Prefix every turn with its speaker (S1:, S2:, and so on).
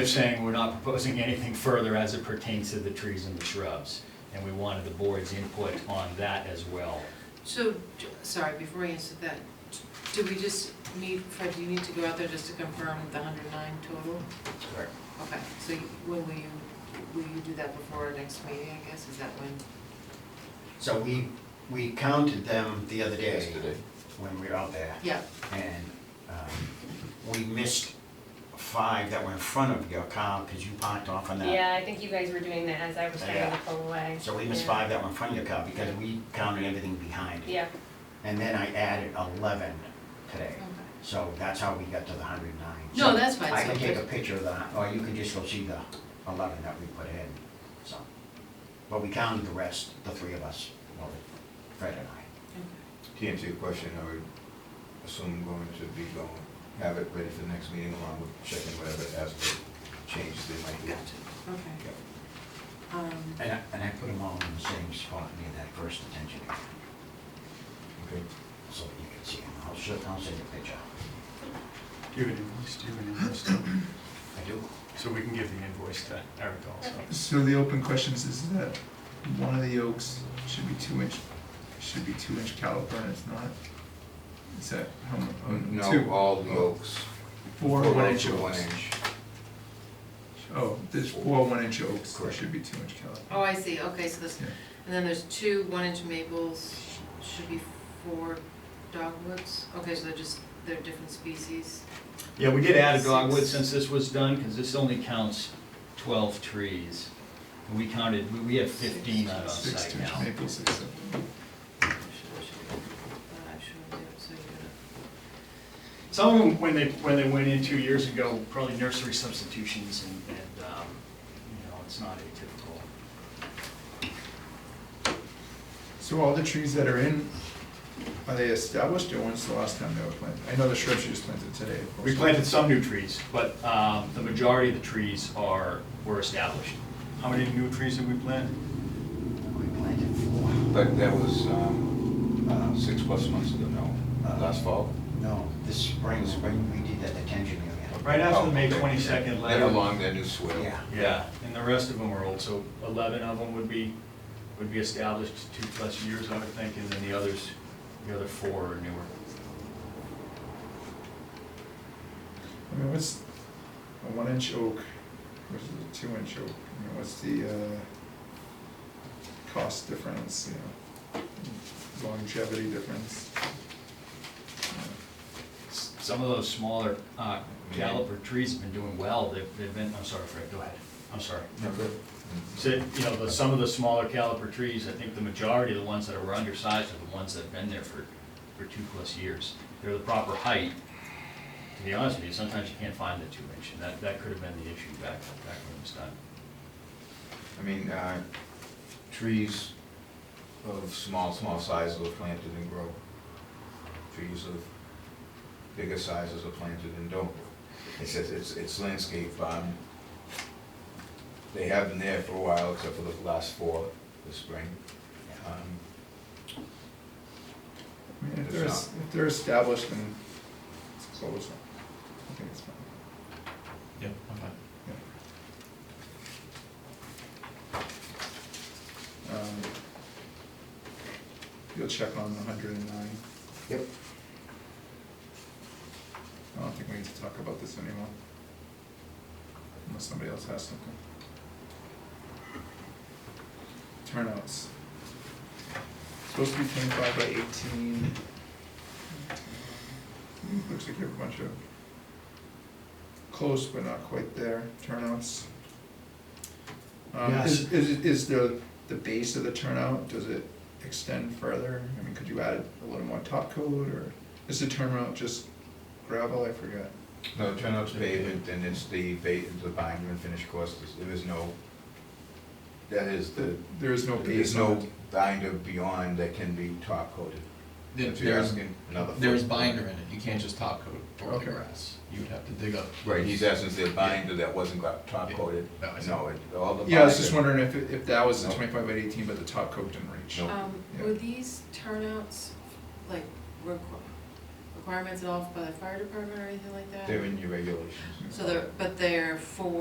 S1: They're saying we're not proposing anything further as it pertains to the trees and the shrubs, and we wanted the board's input on that as well.
S2: So, j- sorry, before I answer that, do we just need, Fred, do you need to go out there just to confirm the hundred and nine total? Okay, so you- when will you, will you do that before our next meeting, I guess, is that when?
S3: So we, we counted them the other day
S4: yesterday.
S3: when we were out there,
S2: Yeah,
S3: and um, we missed five that were in front of your car, because you parked off on that. Oh,
S5: Yeah, I think you guys were doing that as I was trying to
S3: Yeah.
S5: pull away.
S3: So we missed
S5: Yeah.
S3: five that were in front of your car, because we counted everything behind it.
S5: Yeah,
S3: And then I added eleven today,
S2: okay.
S3: so that's how we got to the hundred and nine.
S2: No, that's fine,
S3: I
S2: so
S3: can take a
S2: just-
S3: picture of that, or you can just go see the eleven that we put in, so. But we counted the rest, the three of us, well, Fred and I.
S4: To answer your question, I would assume we're going to be going, have it ready for the next meeting along with checking whatever as changes they might be.
S2: Gotcha, okay.
S4: Yeah.
S2: Um,
S3: And I, and I put them all in the same spot near that first detention area,
S4: Okay.
S3: so that you can see them. I'll show, I'll send you a picture.
S6: Do an invoice, do an invoice, too.
S3: I do.
S6: so we can give the invoice to Eric also.
S5: Perfect.
S7: So the open questions is that one of the oaks should be two inch, should be two inch caliper and it's not? Is that how much?
S4: Mm, No, all the oaks.
S7: Um, Four
S4: Four
S7: one
S4: oaks
S7: inch
S4: are One
S7: oaks.
S4: inch.
S7: Oh, there's four one inch oaks, there
S4: Correct.
S7: should be two inch caliper.
S2: Oh, I see, okay, so this,
S7: Yeah.
S2: and then there's two one-inch maples, sh- should be four dogwoods, okay, so they're just, they're different species.
S1: Yeah, we did add a dogwood since this was done, because this only counts twelve trees. And we counted, we- we have fifteen out on
S7: Six
S1: site
S7: two inch
S1: now.
S7: maples acceptable.
S2: Should, should, uh, should we do it, so you're
S1: Some of them, when they, when they went in two years ago, probably nursery substitutions and, and, um, you know, it's not atypical.
S7: So all the trees that are in, are they established or when's the last time they were planted? I know the shrubs you just planted today. of course.
S1: We planted some new trees, but um, the majority of the trees are, were established.
S6: How many new trees did we plant?
S3: We planted four.
S4: But that was um, uh, six plus months ago, no, last fall?
S3: No, this spring, spring, we did that detention area.
S1: Right after the May
S4: Oh, okay.
S1: 22nd
S4: And
S1: letter.
S4: along that new swale.
S3: Yeah.
S1: Yeah, and the rest of them are old, so 11 of them would be, would be established two plus years, I would think, and then the others, the other four are newer.
S7: I mean, what's a one inch oak versus a two inch oak? I mean, what's the, uh, cost difference, you know, longevity difference?
S1: S- Some of those smaller uh,
S4: Yeah.
S1: caliper trees have been doing well, they've, they've been, I'm sorry, Fred, go ahead, I'm sorry.
S4: Okay.
S1: So, you know, the, some of the smaller caliper trees, I think the majority of the ones that are undersized are the ones that have been there for, for two plus years. They're the proper height. To be honest with you, sometimes you can't find the two inch, and that, that could have been the issue back, back when it was done.
S4: I mean, uh, trees of small, small sizes are planted and grow. Trees of bigger sizes are planted and don't. It says it's, it's landscape, um, they have been there for a while, except for the last four this spring. Um,
S7: I mean, if
S4: It's
S7: they're,
S4: not.
S7: es- if they're established, then it's closed, I think it's fine.
S1: Yeah,
S7: Yeah. Um, You'll check on the hundred and nine,
S4: Yep.
S7: I don't think we need to talk about this anymore. Unless somebody else has something. Turnouts. Supposed to be twenty-five by eighteen. Hmm, Looks like you have a bunch of close but not quite there turnouts. Um, is, is, is the, the base of the turnout, does it extend further? I mean, could you add a little more top coat or is the turnout just gravel? I forget.
S4: No, turnout's pavement, and it's the ba, the binder and finish course, There's- there is no, that is the,
S7: There is no
S4: there is
S7: base on
S4: no
S7: it.
S4: binder beyond that can be top coated.
S8: There-
S4: If you're
S8: There's,
S4: asking another.
S8: there's
S4: foot.
S8: binder in it, you can't just top coat or the
S7: Okay.
S8: grass, you would have to dig up.
S4: Right, he's asking if the binder that wasn't got top coated,
S8: Yeah. No, I see.
S4: no, it, all the.
S7: Yeah, I was just
S4: binder-
S7: wondering if, it- if that was the
S4: No.
S7: twenty-five by eighteen, but the top coat didn't reach.
S4: No.
S2: Um,
S7: Oh, Yeah.
S2: were these turnouts, like, requ- requirements at all by the fire department or anything like that?
S4: They're in your regulations.
S2: So they're, but they're for